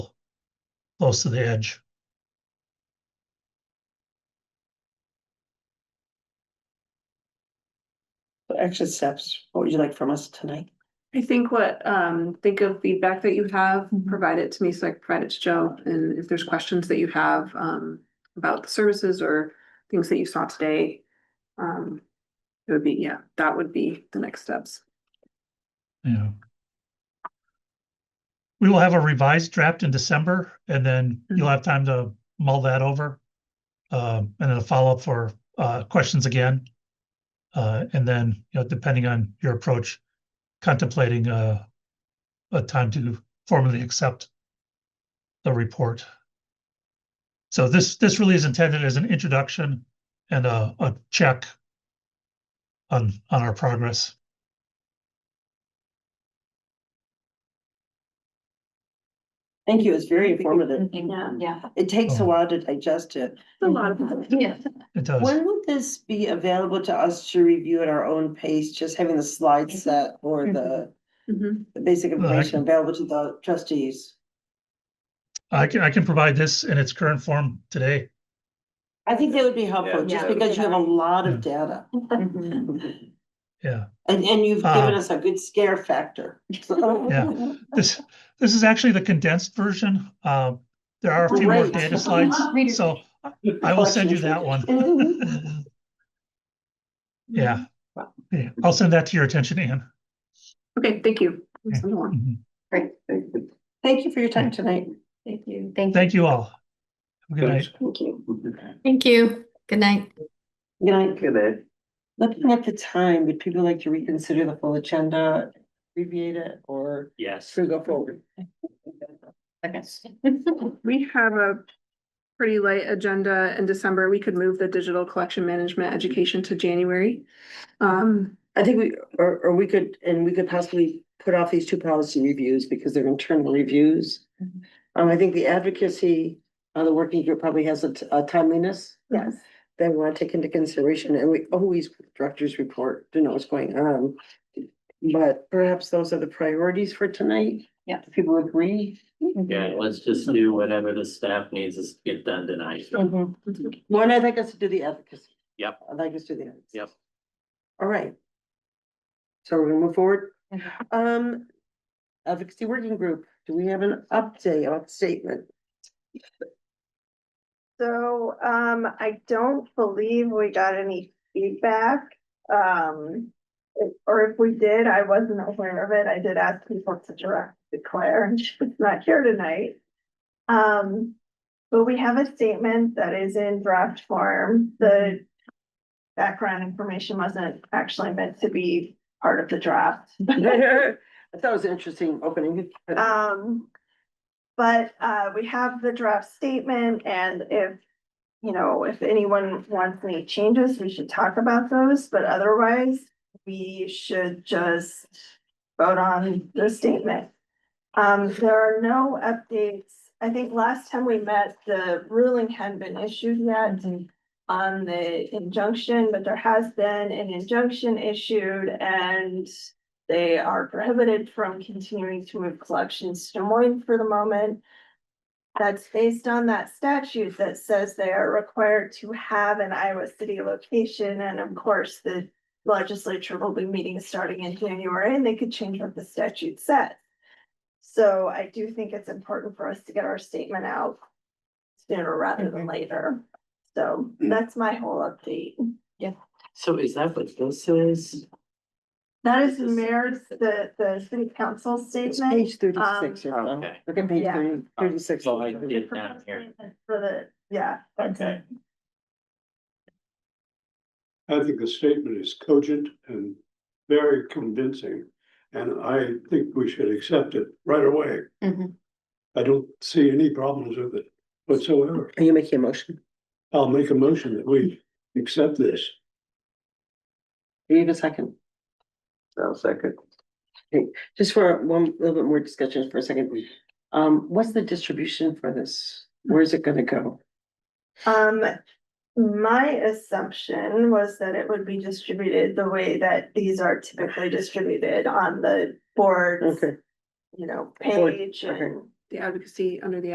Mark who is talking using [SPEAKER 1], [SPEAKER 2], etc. [SPEAKER 1] close to the edge.
[SPEAKER 2] What extra steps, what would you like from us tonight?
[SPEAKER 3] I think what, um, think of feedback that you have,
[SPEAKER 2] Mhm.
[SPEAKER 3] provide it to me, so I can provide it to Joe, and if there's questions that you have, um, about the services or things that you saw today, um, it would be, yeah, that would be the next steps.
[SPEAKER 1] Yeah. We will have a revised draft in December and then you'll have time to mull that over. Um, and then a follow-up for, uh, questions again. Uh, and then, you know, depending on your approach, contemplating, uh, a time to formally accept the report. So this, this really is intended as an introduction and a, a check on, on our progress.
[SPEAKER 2] Thank you, it's very
[SPEAKER 3] Thank you.
[SPEAKER 2] informative.
[SPEAKER 3] Yeah.
[SPEAKER 4] Yeah.
[SPEAKER 2] It takes a
[SPEAKER 1] Oh.
[SPEAKER 2] while to digest it.
[SPEAKER 3] A lot of.
[SPEAKER 4] Yeah.
[SPEAKER 1] It does.
[SPEAKER 2] When would this be available to us to review at our own pace, just having the slide set or the
[SPEAKER 3] Mhm.
[SPEAKER 2] the basic
[SPEAKER 1] Well, I
[SPEAKER 2] information
[SPEAKER 1] can-
[SPEAKER 2] available to the trustees?
[SPEAKER 1] I can, I can provide this in its current form today.
[SPEAKER 2] I think that would be helpful,
[SPEAKER 4] Yeah.
[SPEAKER 2] just because you have a lot of data.
[SPEAKER 1] Yeah.
[SPEAKER 2] And, and you've given
[SPEAKER 1] Uh.
[SPEAKER 2] us a good scare factor.
[SPEAKER 1] Yeah. This, this is actually the condensed version. Um, there are a few more
[SPEAKER 2] Great.
[SPEAKER 1] data slides, so I- I will send you that one. Yeah. Yeah, I'll send that to your attention, Anne.
[SPEAKER 3] Okay, thank you.
[SPEAKER 1] Yeah.
[SPEAKER 3] Send along.
[SPEAKER 1] Mhm.
[SPEAKER 4] Great.
[SPEAKER 2] Thank you for your time tonight.
[SPEAKER 4] Thank you. Thank
[SPEAKER 1] Thank you all. Have a Good night.
[SPEAKER 2] Thank you.
[SPEAKER 5] Thank you. Good night.
[SPEAKER 2] Good night. Good night. Looking at the time, would people like to reconsider the full agenda, abbreviate it, or
[SPEAKER 6] Yes.
[SPEAKER 2] should we go forward?
[SPEAKER 3] We have a pretty light agenda in December. We could move the digital collection management education to January. Um,
[SPEAKER 2] I think we, or, or we could, and we could possibly put off these two policy reviews because they're internal reviews.
[SPEAKER 5] Mm-hmm.
[SPEAKER 2] Um, I think the advocacy, uh, the working group probably has a, t- a timeliness.
[SPEAKER 3] yes.
[SPEAKER 2] that we want to take into consideration, and we always put the director's report to know what's going on. But perhaps those are the priorities for tonight.
[SPEAKER 4] Yeah.
[SPEAKER 2] If People agree.
[SPEAKER 6] Yeah, let's just do whatever the staff needs us to get done tonight.
[SPEAKER 2] One,
[SPEAKER 4] Mm-hmm.
[SPEAKER 2] I'd like us to do the advocacy.
[SPEAKER 6] Yep.
[SPEAKER 2] I'd like us to do the. advocacy.
[SPEAKER 6] Yep.
[SPEAKER 2] All right. So we're gonna move forward. Um, advocacy working group, do we have an update on statement?
[SPEAKER 7] So, um, I don't believe we got any feedback, um. if- Or if we did, I wasn't aware of it. I did ask people to direct to Claire and she's not here tonight. Um, but we have a statement that is in draft form. The. Background information wasn't actually meant to be part of the draft.
[SPEAKER 2] I thought it was an interesting opening.
[SPEAKER 7] Um, but, uh, we have the draft statement and if, you know, if anyone wants any changes, we should talk about those, but otherwise, we should just vote on the statement. Um, there are no updates. I think last time we met, the ruling hadn't been issued yet on the injunction, but there has been an injunction issued and they are prohibited from continuing to move collections to Des Moines for the moment. That's based on that statute that says they are required to have an Iowa City location, and of course, the legislature will be meeting starting in January, and they could change what the statute says. So I do think it's important for us to get our statement out sooner rather than later. So that's my whole update.
[SPEAKER 6] So is that what this is?
[SPEAKER 7] That is the mayor's, the, the city council
[SPEAKER 2] It's
[SPEAKER 7] statement.
[SPEAKER 2] page thirty-six. you know.
[SPEAKER 6] Okay.
[SPEAKER 2] Look at page
[SPEAKER 7] Yeah.
[SPEAKER 2] 30 36.
[SPEAKER 6] So I did down here.
[SPEAKER 7] For the, yeah, that's it.
[SPEAKER 6] Okay.
[SPEAKER 8] I think the statement is cogent and very convincing, and I think we should accept it right away.
[SPEAKER 5] Mhm.
[SPEAKER 8] I don't see any problems with it whatsoever.
[SPEAKER 2] Are you making a motion?
[SPEAKER 8] I'll make a motion that we accept this.
[SPEAKER 2] Do you have a second? No, second. Okay, just for one little bit more discussion for a second. Um, what's the distribution for this? Where's it gonna go?
[SPEAKER 7] Um, my assumption was that it would be distributed the way that these are typically distributed on the board's,
[SPEAKER 2] Okay.
[SPEAKER 7] you know,
[SPEAKER 2] Board,
[SPEAKER 7] page
[SPEAKER 2] okay.
[SPEAKER 7] and.
[SPEAKER 3] The advocacy under the